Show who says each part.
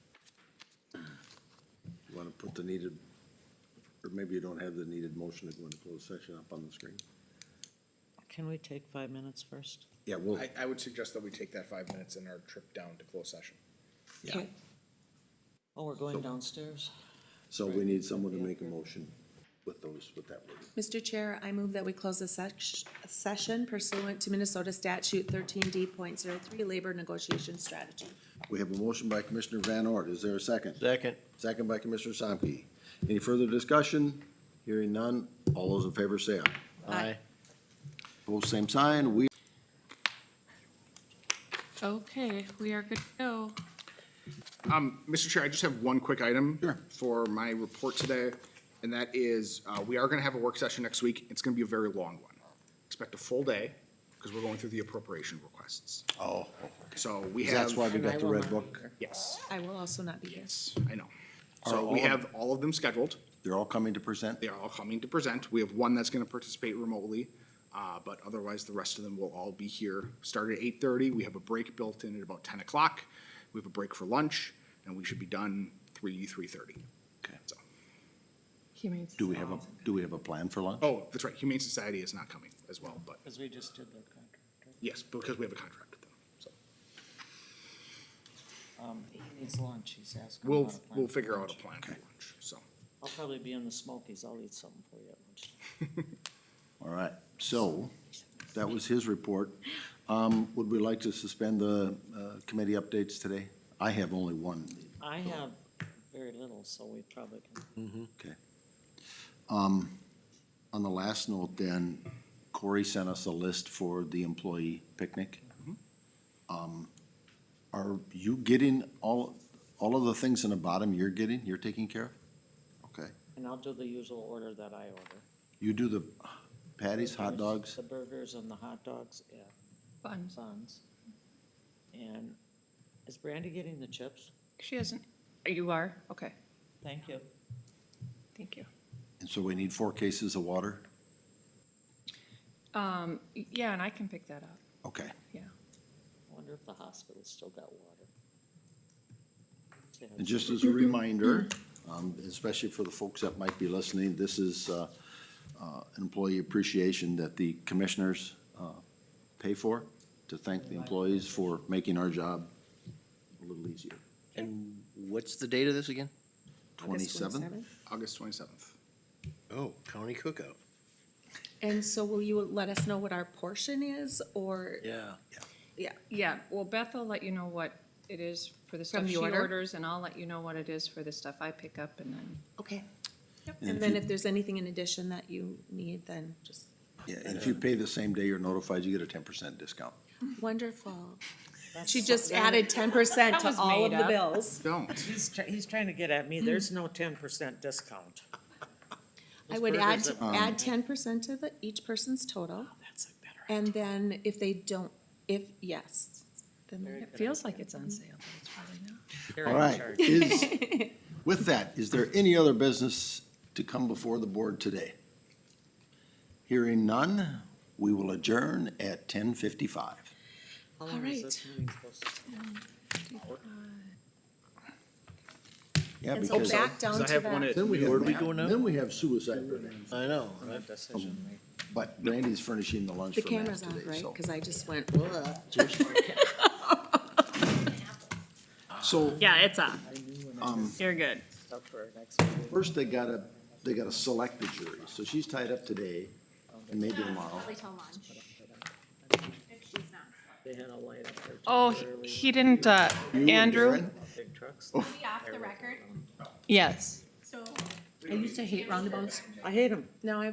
Speaker 1: put the needed, or maybe you don't have the needed motion to go into closed session up on the screen.
Speaker 2: Can we take five minutes first?
Speaker 1: Yeah, we'll,
Speaker 3: I, I would suggest that we take that five minutes in our trip down to closed session.
Speaker 1: yeah.
Speaker 2: Oh, we're going downstairs.
Speaker 1: So we need someone to make a motion with those, with that word.
Speaker 4: Mr. Chair, I move that we close the sec- session pursuant to Minnesota statute thirteen D point zero three, labor negotiation strategy.
Speaker 1: We have a motion by Commissioner Van Ord. Is there a second?
Speaker 5: Second.
Speaker 1: Second by Commissioner Samke. Any further discussion? Hearing none. All those in favor say aye.
Speaker 5: Aye.
Speaker 1: Both same sign. We
Speaker 6: Okay, we are good to go.
Speaker 3: Mr. Chair, I just have one quick item for my report today, and that is, uh, we are gonna have a work session next week. It's gonna be a very long one. Expect a full day, because we're going through the appropriation requests.
Speaker 1: Oh.
Speaker 3: So we have.
Speaker 1: That's why we
Speaker 2: And I
Speaker 1: got the
Speaker 2: will
Speaker 1: red
Speaker 2: not
Speaker 1: book.
Speaker 3: Yes,
Speaker 4: I will also not be here.
Speaker 3: yes, I know.
Speaker 1: Are
Speaker 3: So we
Speaker 1: all-
Speaker 3: have all of them scheduled.
Speaker 1: They're all coming to present?
Speaker 3: They are all coming to present. We have one that's gonna participate remotely, uh, but otherwise, the rest of them will all be here. Start at eight thirty, we have a break built in at about ten o'clock. We have a break for lunch, and we should be done three, three thirty.
Speaker 1: Okay.
Speaker 3: So,
Speaker 1: Do we have a, do we have a plan for lunch?
Speaker 3: oh, that's right, Humane Society is not coming as well, but
Speaker 2: Because we just did the contract.
Speaker 3: yes, because we have a contract with them, so.
Speaker 2: Um, he needs lunch, he's asking.
Speaker 3: We'll,
Speaker 2: about a plan
Speaker 3: we'll
Speaker 2: for
Speaker 3: figure out
Speaker 2: lunch.
Speaker 3: a plan for lunch, so.
Speaker 2: I'll probably be in the Smokies, I'll eat something for you at lunch.
Speaker 1: All right, so that was his report. Um, would we like to suspend the, uh, committee updates today? I have only one.
Speaker 2: I have very little, so we probably can.
Speaker 1: Okay. Um, on the last note then, Corey sent us a list for the employee picnic. Mm-hmm. Um, are you getting all, all of the things in the bottom you're getting, you're taking care of? Okay.
Speaker 2: And I'll do the usual order that I order.
Speaker 1: You do the patties, hot
Speaker 2: Burgers,
Speaker 1: dogs?
Speaker 2: The burgers and the hot dogs, yeah,
Speaker 6: Buns.
Speaker 2: buns. And is Brandy getting the chips?
Speaker 6: She hasn't, you are? Okay,
Speaker 2: Thank you.
Speaker 6: thank you.
Speaker 1: And so we need four cases of water?
Speaker 6: Um, yeah, and I can pick that up,
Speaker 1: Okay.
Speaker 6: yeah.
Speaker 2: I Wonder if the hospital's still got water. See how
Speaker 1: And just as a reminder, um, especially for the folks that might be listening, this is, uh, uh, employee appreciation that the commissioners, uh, pay for to thank the employees for making our job a little easier.
Speaker 5: And what's the date of this again?
Speaker 4: August
Speaker 1: Twenty-seventh?
Speaker 4: 27th.
Speaker 3: August twenty-seventh.
Speaker 5: Oh, county cookout.
Speaker 4: And so will you let us know what our portion is, or?
Speaker 5: Yeah.
Speaker 4: Yeah.
Speaker 6: Yeah, well, Beth will let you know what it is for the stuff
Speaker 4: From the
Speaker 6: she
Speaker 4: order?
Speaker 6: orders, and I'll let you know what it is for the stuff I pick up, and then.
Speaker 4: Okay.
Speaker 1: And
Speaker 4: And
Speaker 1: if
Speaker 4: then
Speaker 1: you-
Speaker 4: if there's anything in addition that you need, then just
Speaker 1: Yeah, and if you pay the same day you're notified, you get a ten percent discount.
Speaker 4: wonderful.
Speaker 2: That's
Speaker 4: She just
Speaker 2: something-
Speaker 4: added ten percent
Speaker 6: That
Speaker 4: to
Speaker 6: was
Speaker 4: all of
Speaker 6: made
Speaker 4: the
Speaker 6: up.
Speaker 4: bills.
Speaker 3: Don't.
Speaker 2: He's, try- he's trying to get at me, there's no ten percent discount.
Speaker 4: I would add,
Speaker 2: Those burgers are-
Speaker 3: Um,
Speaker 4: add ten percent to the, each person's total.
Speaker 2: That's a better.
Speaker 4: And then if they don't, if, yes,
Speaker 2: Very
Speaker 4: then,
Speaker 2: good
Speaker 6: like it's on sale, but it's probably not.
Speaker 2: idea.
Speaker 1: All right, is, with that, is there any other business to come before the board today? Hearing none, we will adjourn at ten fifty-five.
Speaker 2: How long is this
Speaker 4: Alright.
Speaker 2: meeting supposed to take?
Speaker 1: Yeah,
Speaker 4: and so
Speaker 1: because
Speaker 4: back down
Speaker 3: Because I
Speaker 4: to
Speaker 3: have one
Speaker 4: that.
Speaker 3: at.
Speaker 1: then we
Speaker 5: Where'd we
Speaker 1: have,
Speaker 5: go now?
Speaker 1: then we have suicide.
Speaker 5: I know,
Speaker 2: No decision made.
Speaker 1: But Randy's furnishing the lunch
Speaker 4: The
Speaker 1: for Matt
Speaker 4: camera's on,
Speaker 1: today,
Speaker 4: right?
Speaker 1: so.
Speaker 4: Cause I just went, ugh.
Speaker 1: So
Speaker 6: Yeah, it's up.
Speaker 2: I knew when I was
Speaker 6: You're good.
Speaker 2: up for our next meeting.
Speaker 1: first they gotta, they gotta select the jury. So she's tied up today and maybe tomorrow.
Speaker 7: Probably till lunch, if she's not.
Speaker 2: They had a light up there.
Speaker 6: Oh, he-
Speaker 2: temporarily with
Speaker 6: he didn't, uh,
Speaker 1: You and
Speaker 6: Andrew?
Speaker 1: Darren?
Speaker 2: Big trucks.
Speaker 7: Be off the record,
Speaker 6: Yes.
Speaker 7: so.
Speaker 4: I used to hate roundabouts.
Speaker 2: I hate them.
Speaker 4: Now I